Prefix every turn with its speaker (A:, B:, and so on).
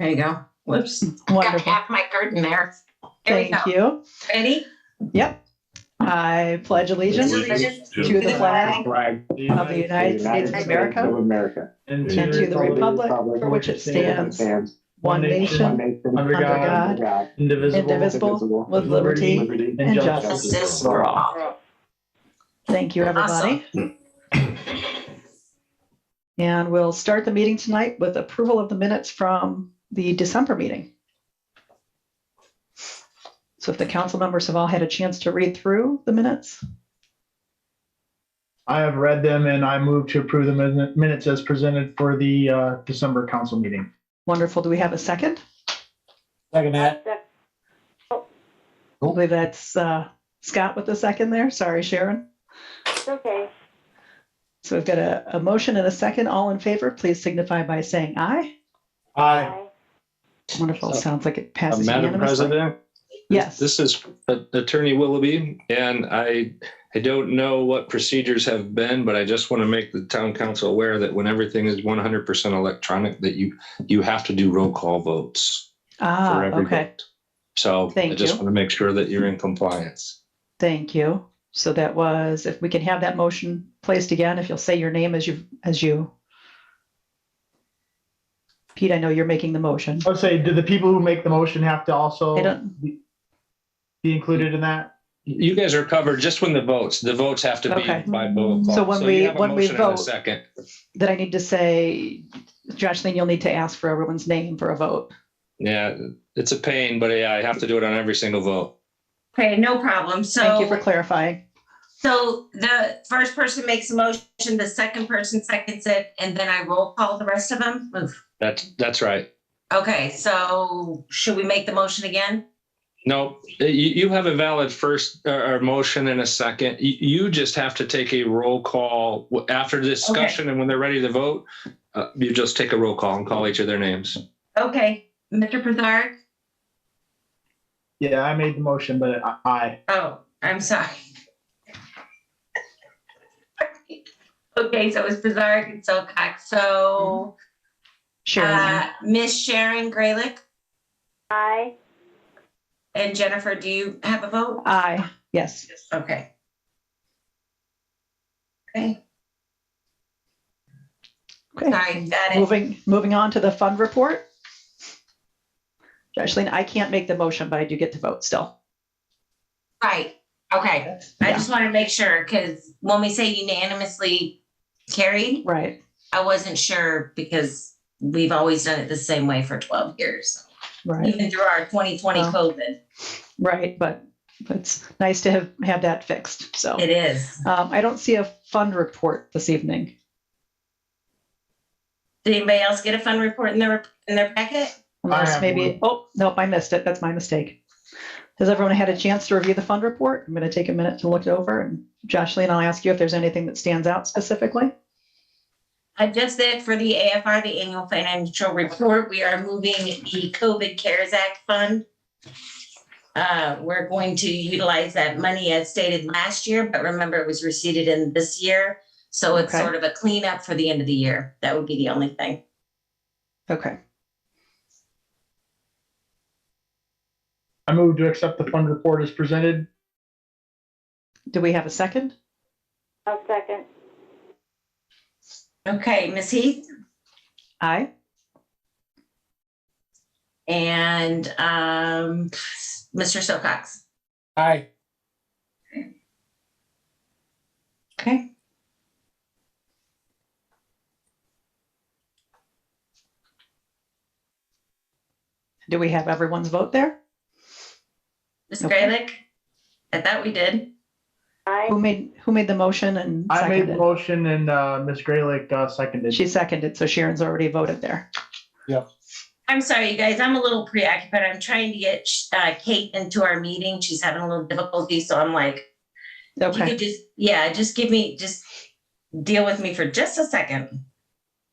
A: you go. Whoops. Got
B: Wonderful.
A: half my garden there. There we
B: Thank
A: go.
B: you.
A: Ready?
B: I pledge allegiance
A: Allegiance
B: to the flag
C: flag
B: of the United States of America
C: Of America.
D: and
B: and to the republic for which it stands,
C: Stands.
B: one
C: One
B: nation,
C: nation.
D: under
B: under
D: God,
B: God,
C: God.
B: indivisible, with liberty.
C: Liberty.
B: and
A: This
B: justice.
A: is for all.
B: Thank you, everybody. And we'll start the meeting tonight with approval of the minutes from the December meeting. So if the council members have all had a chance to read through the minutes,
E: I have read them and I move to approve the min- minutes as presented for the uh, December council meeting.
B: wonderful. Do we have a second?
C: Second that.
B: I believe that's uh, Scott with the second there. Sorry, Sharon.
F: Okay.
B: So we've got a, a motion and a second. All in favor, please signify by saying aye.
E: Aye.
B: Wonderful. Sounds like it
G: Uh,
B: passes
G: Madam
B: unanimously.
G: President?
B: Yes.
G: This is Attorney Willoughby, and I, I don't know what procedures have been, but I just want to make the town council aware that when everything is one hundred percent electronic, that you, you have to do roll call votes
B: Ah,
G: for every
B: okay.
G: vote. So I
B: Thank
G: just
B: you.
G: want to make sure that you're in compliance.
B: Thank you. So that was, if we can have that motion placed again, if you'll say your name as you, as you. Pete, I know you're making the motion.
E: Let's say, do the people who make the motion have to
G: Oh.
E: also
B: I don't,
E: be included in that?
G: You guys are covered just when the votes, the votes have to be
B: Okay.
G: by roll call.
B: So when we-
G: you have a
B: when we
G: motion and a
B: vote-
G: Second,
B: that I need to say, Jocelyn, you'll need to ask for everyone's name for a vote.
G: yeah, it's a pain, but yeah, I have to do it on every single vote.
A: Okay, no problem.
B: Thank you for
A: So,
B: clarifying.
A: so the first person makes a motion, the second person seconds it, and then I roll call the rest of them. Oof.
G: That's, that's right.
A: Okay, so should we make the motion again?
G: No, you, you have a valid first uh, or motion and a second. You, you just have to take a roll call w- after discussion and when they're ready to vote, uh, you just take a roll call and call each of their names.
A: Okay, Mr. Pizarro?
E: Yeah, I made the motion, but I- aye.
A: Oh, I'm sorry. Okay, so it was Pizarro and Silcox. So,
B: Sharon,
A: uh, Miss Sharon Graylick
F: Aye.
A: and Jennifer, do you have a vote?
B: aye. Yes.
A: Okay. Okay,
B: Okay.
A: sorry, got it.
B: Moving, moving on to the fund report. Jocelyn, I can't make the motion, but I do get to vote still.
A: Right, okay. I just want to make sure, because when we say unanimously carried,
B: Right,
A: I wasn't sure because we've always done it the same way for twelve years,
B: right,
A: even through our twenty twenty
B: Wow.
A: COVID.
B: right. But it's nice to have, have that fixed. So
A: It is.
B: um, I don't see a fund report this evening.
A: Did anybody else get a fund report in their, in their packet?
B: Unless
E: have
B: maybe, oh, nope, I missed it. That's my mistake. Has everyone had a chance to review the fund report? I'm going to take a minute to look it over. And Jocelyn, I'll ask you if there's anything that stands out specifically.
A: I just did for the AFR, the annual financial report, we are moving the COVID CARES Act fund. Uh, we're going to utilize that money as stated last year, but remember it was receipted in this year. So it's
B: Okay.
A: sort of a cleanup for the end of the year. That would be the only thing.
B: Okay,
E: I move to accept the fund report as presented.
B: do we have a second?
F: I'll second.
A: Okay, Ms. Heath
B: Aye.
A: and, um, Mr. Silcox.
C: Aye.
A: Okay.
B: Do we have everyone's vote there?
A: Ms.
B: Okay.
A: Graylick? I thought we did.
F: Aye.
B: Who made, who made the motion and
E: I made the
B: seconded?
E: motion and uh, Ms. Graylick uh, seconded.
B: She seconded, so Sharon's already voted there.
A: I'm sorry, you guys, I'm a little preoccupied. I'm trying to get uh, Kate into our meeting. She's having a little difficulty, so I'm like, you
B: Okay,
A: could just, yeah, just give me, just deal with me for just a second.